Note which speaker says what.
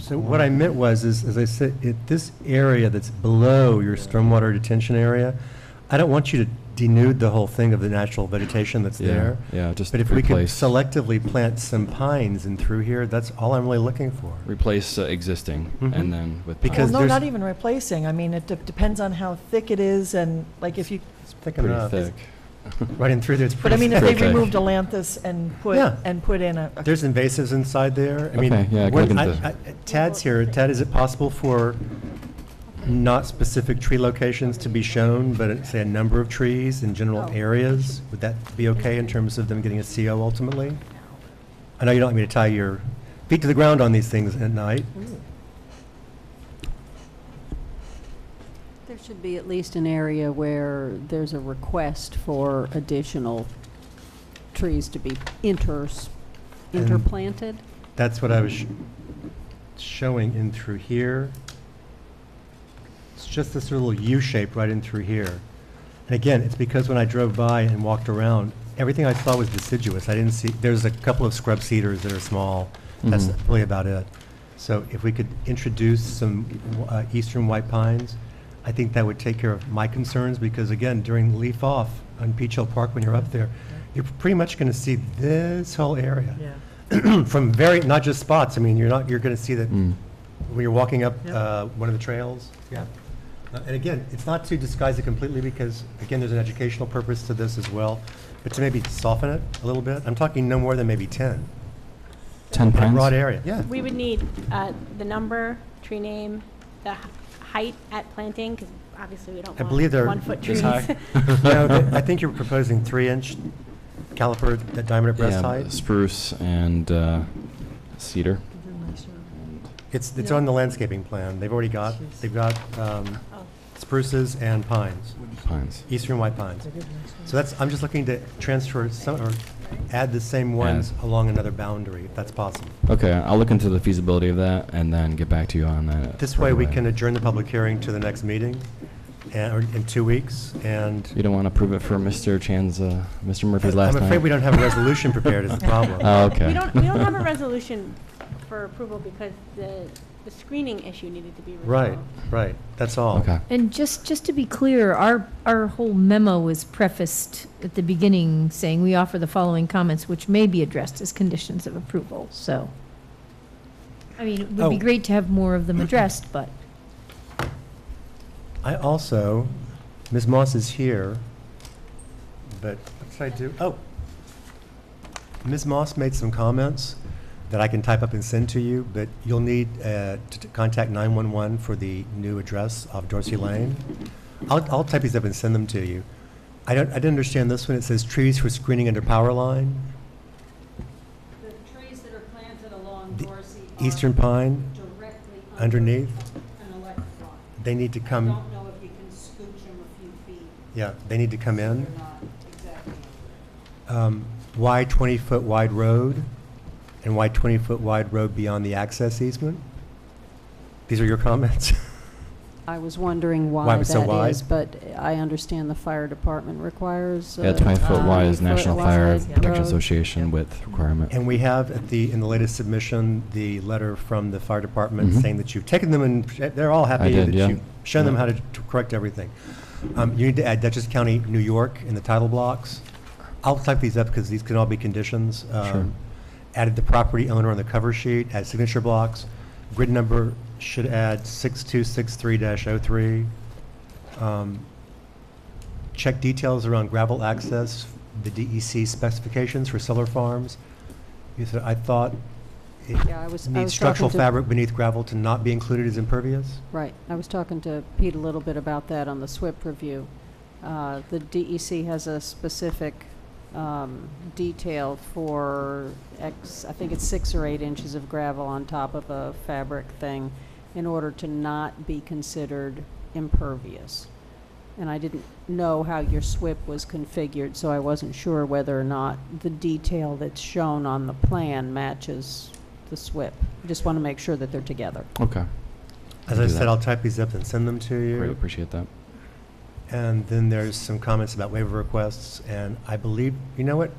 Speaker 1: so what I meant was, is, as I said, it, this area that's below your stormwater detention area, I don't want you to denude the whole thing of the natural vegetation that's
Speaker 2: Yeah,
Speaker 1: there.
Speaker 2: yeah, just
Speaker 1: But if we could
Speaker 2: replace.
Speaker 1: selectively plant some pines in through here, that's all I'm really looking for.
Speaker 2: Replace uh, existing
Speaker 1: Mhm.
Speaker 2: and then with. pine.
Speaker 1: Because
Speaker 3: Well, no,
Speaker 1: there's-
Speaker 3: not even replacing. I mean, it de- depends on how thick it is and like if you,
Speaker 1: It's thick
Speaker 2: Pretty
Speaker 1: enough.
Speaker 2: thick.
Speaker 1: Right in through there, it's
Speaker 3: but I
Speaker 1: pretty
Speaker 3: mean, if
Speaker 1: thick.
Speaker 3: they
Speaker 2: Perfect.
Speaker 3: removed Atlantis and put,
Speaker 1: Yeah.
Speaker 3: and put in a, a-
Speaker 1: There's invasives inside there. I mean,
Speaker 2: Okay, yeah, I can
Speaker 1: when-
Speaker 2: look
Speaker 1: I-
Speaker 2: into-
Speaker 1: I- Tad's here. Tad, is it possible for not specific tree locations to be shown, but say a number of trees in general areas? Would that be okay in terms of them getting a CO ultimately? I know you don't want me to tie your feet to the ground on these things at night.
Speaker 4: There should be at least an area where there's a request for additional trees to be inters,
Speaker 1: And-
Speaker 4: interplanted.
Speaker 1: That's what I was sh- showing in through here. It's just this little U shape right in through here. And again, it's because when I drove by and walked around, everything I saw was deciduous. I didn't see, there's a couple of scrub cedars that are small. That's
Speaker 2: Mhm.
Speaker 1: really about it. So if we could introduce some uh, eastern white pines, I think that would take care of my concerns because again, during leaf off on Peach Hill Park, when you're up there, you're pretty much going to see this whole area
Speaker 3: yeah.
Speaker 1: from very, not just spots, I mean, you're not, you're going to see that
Speaker 2: Mm.
Speaker 1: when you're walking up
Speaker 3: Yeah.
Speaker 1: uh, one of the trails. Yeah. Uh, And again, it's not to disguise it completely because, again, there's an educational purpose to this as well, but to maybe soften it a little bit. I'm talking no more than maybe 10,
Speaker 2: Ten
Speaker 1: in a broad
Speaker 2: pines?
Speaker 1: area, yeah.
Speaker 5: We would need uh, the number, tree name, the h- height at planting, because obviously we don't
Speaker 1: I believe
Speaker 5: want
Speaker 1: they're
Speaker 5: one-foot
Speaker 2: this
Speaker 5: trees.
Speaker 2: high.
Speaker 1: No, th- I think you're proposing three-inch caliper, that diameter breast
Speaker 2: Yeah,
Speaker 1: height.
Speaker 2: spruce and uh, cedar.
Speaker 1: It's, it's on the landscaping plan. They've already got,
Speaker 3: Jeez.
Speaker 1: they've got um,
Speaker 5: Oh.
Speaker 1: spruces and pines,
Speaker 2: Pines.
Speaker 1: eastern white pines. So that's, I'm just looking to transfer some, or add the same ones along another boundary, if that's possible.
Speaker 2: Okay, I'll look into the feasibility of that and then get back to you on that.
Speaker 1: This
Speaker 2: right
Speaker 1: way, we
Speaker 2: away.
Speaker 1: can adjourn the public hearing to the next meeting, and, or in two weeks,
Speaker 2: You
Speaker 1: and
Speaker 2: don't want to prove it for Mr. Chan's, uh, Mr. Murphy's last
Speaker 1: I'm
Speaker 2: night?
Speaker 1: afraid we don't have a resolution prepared is the problem.
Speaker 2: Oh, okay.
Speaker 5: We don't, we don't have a resolution for approval because the, the screening issue needed to be resolved.
Speaker 1: Right, right, that's all.
Speaker 2: Okay.
Speaker 6: And just, just to be clear, our, our whole memo was prefaced at the beginning saying we offer the following comments, which may be addressed as conditions of approval, so. I mean, it would
Speaker 1: Oh.
Speaker 6: be great to have more of them addressed, but.
Speaker 1: I also, Ms. Moss is here, but what did I do? Oh. Ms. Moss made some comments that I can type up and send to you, but you'll need uh, to to contact 911 for the new address of Dorsey Lane. I'll, I'll type these up and send them to you. I don't, I didn't understand this one. It says trees for screening under power line,
Speaker 4: The trees that are planted along
Speaker 1: The
Speaker 4: Dorsey
Speaker 1: eastern pine.
Speaker 4: directly
Speaker 1: underneath.
Speaker 4: an electric line.
Speaker 1: They need to come,
Speaker 4: know if you can scooch them a few feet.
Speaker 1: yeah, they need to come in.
Speaker 4: not exactly.
Speaker 1: um, why 20-foot wide road and why 20-foot wide road beyond the access easement? These are your comments?
Speaker 4: I was wondering
Speaker 1: Why
Speaker 4: why
Speaker 1: it was so
Speaker 4: that
Speaker 1: wide?
Speaker 4: is, but I understand the fire department requires. uh,
Speaker 2: Yeah,
Speaker 5: Uh,
Speaker 2: 20-foot wide is National Fire Protection
Speaker 4: Association.
Speaker 2: Association width requirement.
Speaker 1: And we have at the, in the latest submission, the letter from the fire department
Speaker 2: Mhm.
Speaker 1: saying that you've taken them and they're all happy
Speaker 2: did,
Speaker 1: that
Speaker 2: yeah.
Speaker 1: you've shown them
Speaker 2: Yeah.
Speaker 1: how to t- correct everything. Um, You need to add Dutchess County, New York in the title blocks. I'll type these up because these can all be conditions. Um,
Speaker 2: Sure.
Speaker 1: Added the property owner on the cover sheet, add signature blocks. Grid number should add 6263-03. Um, Check details around gravel access, the DEC specifications for solar farms. You said, I thought it
Speaker 4: Yeah, I was,
Speaker 1: needs
Speaker 4: I was talking
Speaker 1: structural
Speaker 4: to,
Speaker 1: fabric beneath gravel to not be included as impervious?
Speaker 4: right, I was talking to Pete a little bit about that on the SWIP review. Uh, The DEC has a specific um, detail for X, I think it's six or eight inches of gravel on top of a fabric thing in order to not be considered impervious. And I didn't know how your SWIP was configured, so I wasn't sure whether or not the detail that's shown on the plan matches the SWIP. I Just want to make sure that they're together.
Speaker 2: Okay,
Speaker 1: As
Speaker 2: Can
Speaker 1: I
Speaker 2: do
Speaker 1: said,
Speaker 2: that.
Speaker 1: I'll type these up and send them to
Speaker 2: great,
Speaker 1: you.
Speaker 2: appreciate that.
Speaker 1: And then there's some comments about waiver requests, and I believe, you know what?